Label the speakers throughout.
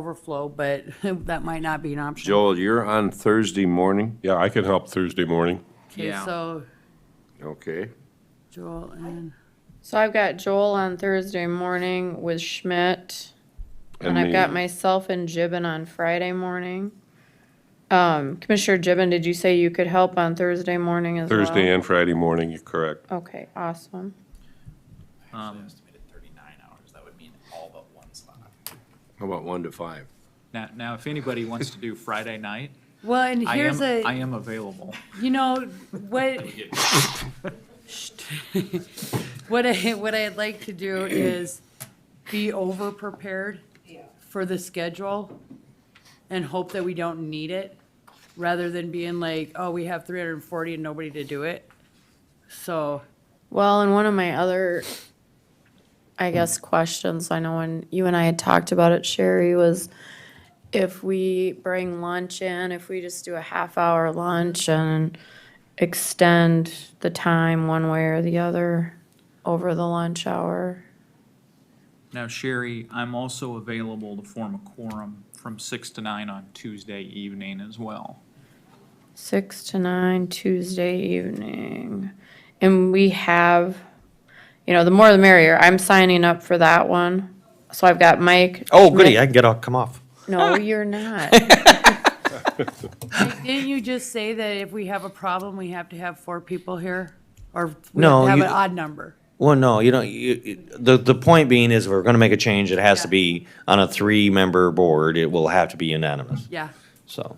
Speaker 1: overflow, but that might not be an option.
Speaker 2: Joel, you're on Thursday morning?
Speaker 3: Yeah, I can help Thursday morning.
Speaker 1: Okay,
Speaker 4: Yeah.
Speaker 1: so
Speaker 2: Okay.
Speaker 1: Joel and,
Speaker 5: So I've got Joel on Thursday morning with Schmidt, and I've
Speaker 3: me.
Speaker 5: got myself and Gibbon on Friday morning. Um, Commissioner Gibbon, did you say you could help on Thursday morning as well?
Speaker 3: Thursday and Friday morning, you're correct.
Speaker 5: Okay, awesome.
Speaker 4: Um,
Speaker 6: estimated 39 hours. That would mean all but one slot.
Speaker 2: How about one to five?
Speaker 4: Now, now, if anybody wants to do Friday night,
Speaker 1: well, and
Speaker 4: I
Speaker 1: here's
Speaker 4: am, I
Speaker 1: a,
Speaker 4: am available.
Speaker 1: you know, what, what I, what I'd like to do is be over-prepared for the schedule and hope that we don't need it, rather than being like, oh, we have three hundred and forty and nobody to do it. So,
Speaker 5: Well, and one of my other, I guess, questions, I know when you and I had talked about it, Sherry, was if we bring lunch in, if we just do a half hour lunch and extend the time one way or the other over the lunch hour.
Speaker 4: Now, Sherry, I'm also available to form a quorum from six to nine on Tuesday evening as well.
Speaker 5: Six to nine Tuesday evening. And we have, you know, the more the merrier. I'm signing up for that one. So I've got Mike.
Speaker 7: Oh, goody,
Speaker 5: Schmidt-
Speaker 7: I can get off, come off.
Speaker 5: No, you're not.
Speaker 1: didn't you just say that if we have a problem, we have to have four people here? Or we have
Speaker 7: No,
Speaker 1: to have
Speaker 7: you-
Speaker 1: an odd number?
Speaker 7: Well, no, you don't, you, you- the, the point being is if we're gonna make a change, it has to
Speaker 1: Yeah.
Speaker 7: be on a three-member board, it will have to be unanimous,
Speaker 1: Yeah, Um,
Speaker 7: so.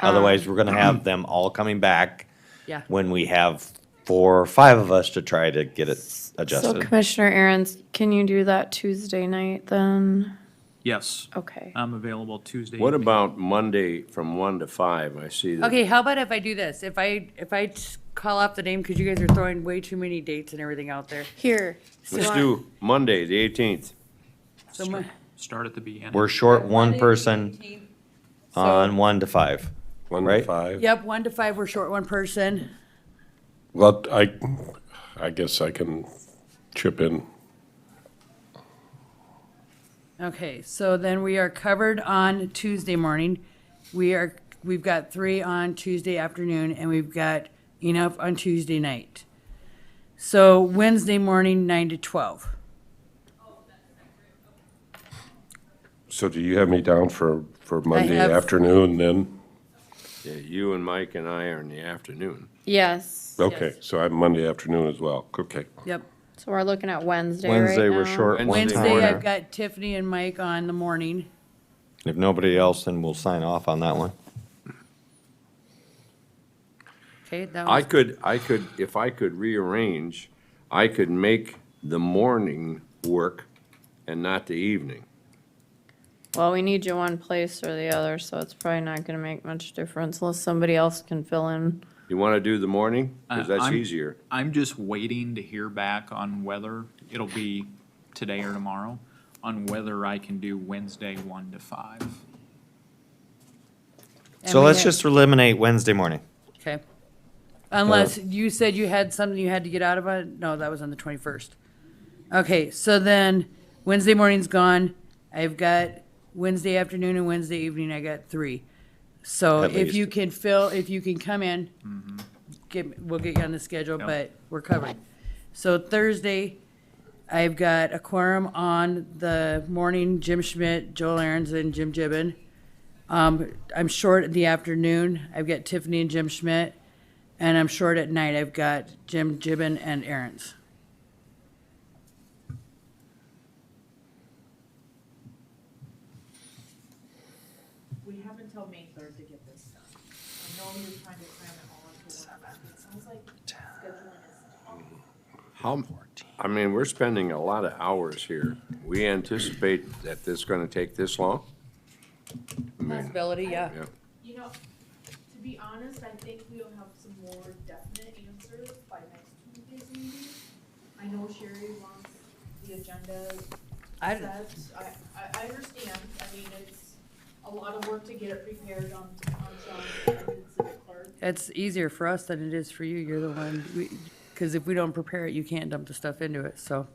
Speaker 7: Otherwise, we're gonna have them all coming back
Speaker 1: yeah.
Speaker 7: when we have four or five of us to try to get it
Speaker 5: So
Speaker 7: adjusted.
Speaker 5: Commissioner Aaron's, can you do that Tuesday night then?
Speaker 4: Yes,
Speaker 5: Okay.
Speaker 4: I'm available Tuesday.
Speaker 2: What
Speaker 4: evening.
Speaker 2: about Monday from one to five? I see that.
Speaker 1: Okay, how about if I do this? If I, if I just call off the name, because you guys are throwing way too many dates and everything out there.
Speaker 5: Here.
Speaker 2: Let's do Monday, the eighteenth.
Speaker 1: So my-
Speaker 4: Start at the beginning.
Speaker 7: We're short one person on
Speaker 1: So-
Speaker 7: one to five.
Speaker 3: One to
Speaker 7: Right.
Speaker 3: five.
Speaker 1: Yep, one to five, we're short one person.
Speaker 3: Well, I, I guess I can chip in.
Speaker 1: Okay, so then we are covered on Tuesday morning. We are, we've got three on Tuesday afternoon, and we've got enough on Tuesday night. So Wednesday morning, nine to twelve.
Speaker 3: So do you have me down for, for Monday
Speaker 1: have-
Speaker 3: afternoon then?
Speaker 2: Yeah, you and Mike and I are in the afternoon.
Speaker 5: Yes.
Speaker 3: Okay, so I'm Monday afternoon as well, okay.
Speaker 1: Yep.
Speaker 5: So we're looking at Wednesday right
Speaker 7: Wednesday, we're
Speaker 5: now.
Speaker 7: short one
Speaker 2: Wednesday
Speaker 1: Wednesday, I've
Speaker 7: time.
Speaker 1: got Tiffany and Mike on the morning.
Speaker 7: If nobody else, then we'll sign off on that one.
Speaker 1: Okay, that
Speaker 2: I
Speaker 1: was,
Speaker 2: could, I could, if I could rearrange, I could make the morning work and not the evening.
Speaker 5: Well, we need you one place or the other, so it's probably not gonna make much difference unless somebody else can fill in.
Speaker 2: You want to do the morning? Because
Speaker 4: Uh,
Speaker 2: that's
Speaker 4: I'm-
Speaker 2: easier.
Speaker 4: I'm just waiting to hear back on whether, it'll be today or tomorrow, on whether I can do Wednesday one to five.
Speaker 7: So
Speaker 1: we
Speaker 7: let's
Speaker 1: had-
Speaker 7: just eliminate Wednesday morning.
Speaker 1: okay. Unless you said you had something you had to get out of it. No, that was on the 21st. Okay, so then Wednesday morning's gone. I've got Wednesday afternoon and Wednesday evening, I got three. So
Speaker 7: At
Speaker 1: if you
Speaker 7: least. Mm-hmm.
Speaker 1: can fill, if you can come in, get, we'll get you on the schedule,
Speaker 4: Yep.
Speaker 1: but we're covered. So Thursday, I've got a quorum on the morning, Jim Schmidt, Joel Aaron's and Jim Gibbon. Um, I'm short in the afternoon. I've got Tiffany and Jim Schmidt. And I'm short at night. I've got Jim Gibbon and Aaron's.
Speaker 8: We have until May third to get this done. I know you're trying to cram it all into one, but it sounds like scheduling is
Speaker 2: How, I mean, we're spending a lot of hours here. We anticipate that this is going to take this long? I mean,
Speaker 1: Possibility, yeah.
Speaker 2: yeah.
Speaker 8: You know, to be honest, I think we'll have some more definite answers by next Tuesday's meeting. I know Sherry wants the agenda
Speaker 1: I
Speaker 8: set.
Speaker 1: don't-
Speaker 8: I, I, I understand. I mean, it's a lot of work to get it prepared on, on Sean's end and Civic Clerk.
Speaker 1: It's easier for us than it is for you. You're the one, because if we don't prepare it, you can't dump the stuff into it, so.